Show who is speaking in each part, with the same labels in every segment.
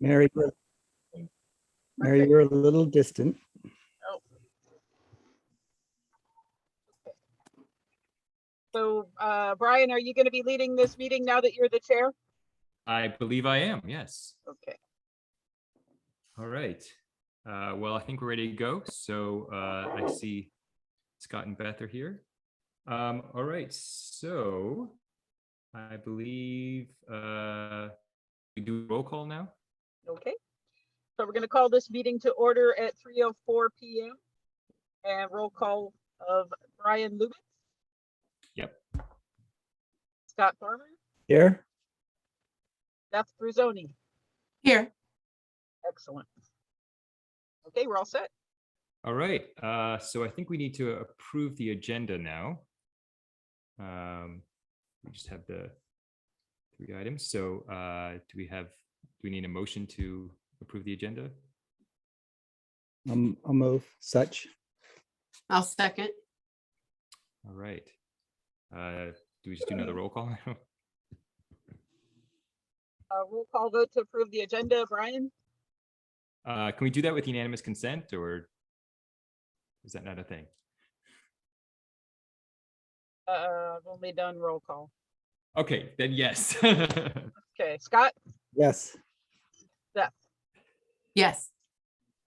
Speaker 1: Mary, you're- Mary, you're a little distant.
Speaker 2: So, uh, Brian, are you going to be leading this meeting now that you're the chair?
Speaker 3: I believe I am, yes.
Speaker 2: Okay.
Speaker 3: All right. Uh, Well, I think we're ready to go. So uh, I see Scott and Beth are here. Um, All right, so I believe uh, we do roll call now.
Speaker 2: Okay. So we're going to call this meeting to order at 3:04 PM. And roll call of Brian Lubitz.
Speaker 3: Yep.
Speaker 2: Scott Farmer,
Speaker 1: Here,
Speaker 2: Beth Bruzoni.
Speaker 4: Here,
Speaker 2: Excellent. Okay, we're all set.
Speaker 3: All right, uh, so I think we need to approve the agenda now. Um, We just have the three items. So uh, do we have, do we need a motion to approve the agenda?
Speaker 1: um, I'll move such.
Speaker 4: I'll second.
Speaker 3: All right. Uh, Do we just do another roll call?
Speaker 2: Uh, Roll call vote to approve the agenda. Brian,
Speaker 3: Uh, Can we do that with unanimous consent or is that not a thing?
Speaker 2: Uh, I've only done roll call.
Speaker 3: Okay, then yes.
Speaker 2: Okay, Scott,
Speaker 1: Yes,
Speaker 4: Yes,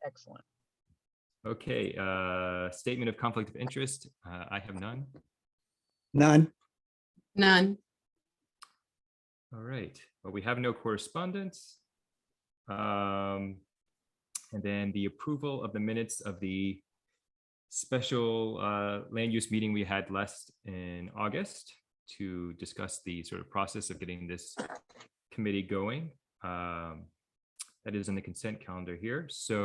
Speaker 2: excellent.
Speaker 3: Okay, uh, statement of conflict of interest. uh, I have none.
Speaker 1: none.
Speaker 4: none.
Speaker 3: All right, well, we have no correspondence. Um, And then the approval of the minutes of the special uh, land use meeting we had last in August to discuss the sort of process of getting this committee going. Um, That is in the consent calendar here, so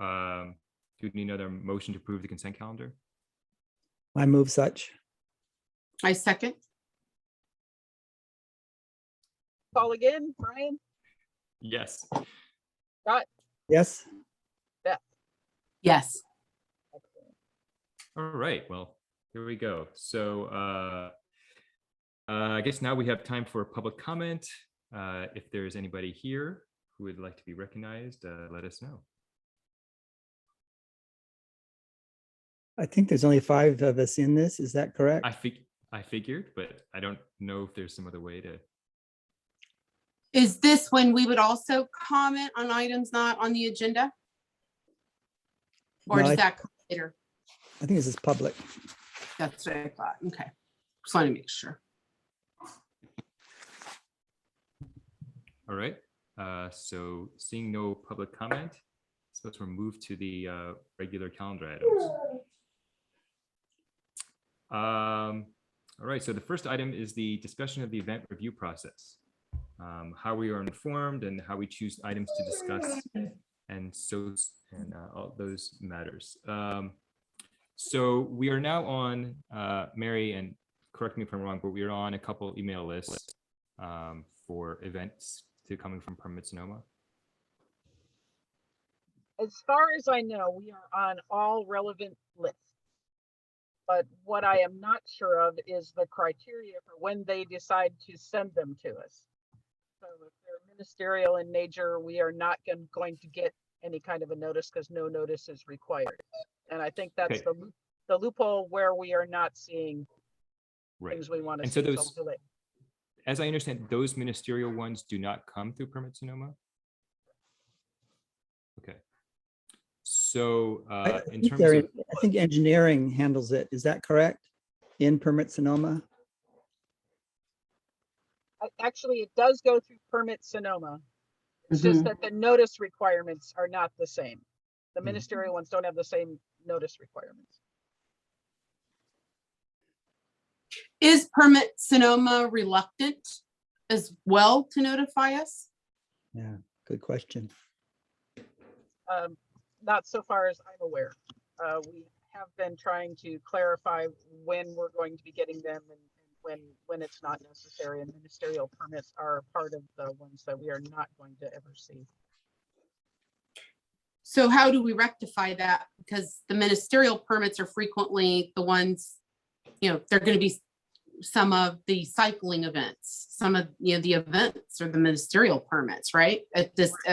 Speaker 3: um, do you need another motion to approve the consent calendar?
Speaker 1: I move such.
Speaker 4: I second.
Speaker 2: Call again, Brian?
Speaker 3: Yes.
Speaker 1: Yes,
Speaker 4: Yes,
Speaker 2: Excellent.
Speaker 3: All right, well, here we go. So uh, uh, I guess now we have time for public comment. Uh, If there's anybody here who would like to be recognized, uh, let us know.
Speaker 1: I think there's only five of us in this. Is that correct?
Speaker 3: I fig, I figured, but I don't know if there's some other way to.
Speaker 4: is this when we would also comment on items not on the agenda? Or
Speaker 1: No, I-
Speaker 4: does that come later?
Speaker 1: I think this is public.
Speaker 4: That's what I thought. Okay. Just want to make sure.
Speaker 3: All right, uh, so seeing no public comment, suppose we're moved to the uh, regular calendar items. Um, all right, so the first item is the discussion of the event review process. Um, how we are informed and how we choose items to discuss and so, and uh, all those matters. Um, so we are now on, uh, Mary, and correct me if I'm wrong, but we are on a couple email lists um, for events to coming from Permit Sonoma.
Speaker 2: As far as I know, we are on all relevant lists. But what I am not sure of is the criteria for when they decide to send them to us. So if they're ministerial in nature, we are not gon- going to get any kind of a notice because no notice is required. And I think that's
Speaker 3: Okay.
Speaker 2: the loop- the loophole where we are not seeing
Speaker 3: Right.
Speaker 2: things we want to
Speaker 3: And so
Speaker 2: see. so
Speaker 3: those-
Speaker 2: we'll do it.
Speaker 3: As I understand, those ministerial ones do not come through Permit Sonoma? Okay. So
Speaker 1: I- I
Speaker 3: uh, in
Speaker 1: think
Speaker 3: terms
Speaker 1: they're
Speaker 3: of,
Speaker 1: in- I think engineering handles it. Is that correct? In permit Sonoma?
Speaker 2: I- Actually, it does go through permit Sonoma. It's just
Speaker 4: Mhm.
Speaker 2: that the notice requirements are not the same. The
Speaker 3: Mhm.
Speaker 2: ministerial ones don't have the same notice requirements.
Speaker 4: Is permit Sonoma reluctant as well to notify us?
Speaker 1: Good question.
Speaker 2: Um, not so far as I'm aware. Uh, we have been trying to clarify when we're going to be getting them and and when, when it's not necessary and ministerial permits are part of the ones that we are not going to ever see.
Speaker 4: So how do we rectify that? Because the ministerial permits are frequently the ones, you know, they're gonna be some of the cycling events, some of, you know, the events or the ministerial permits, right? At this,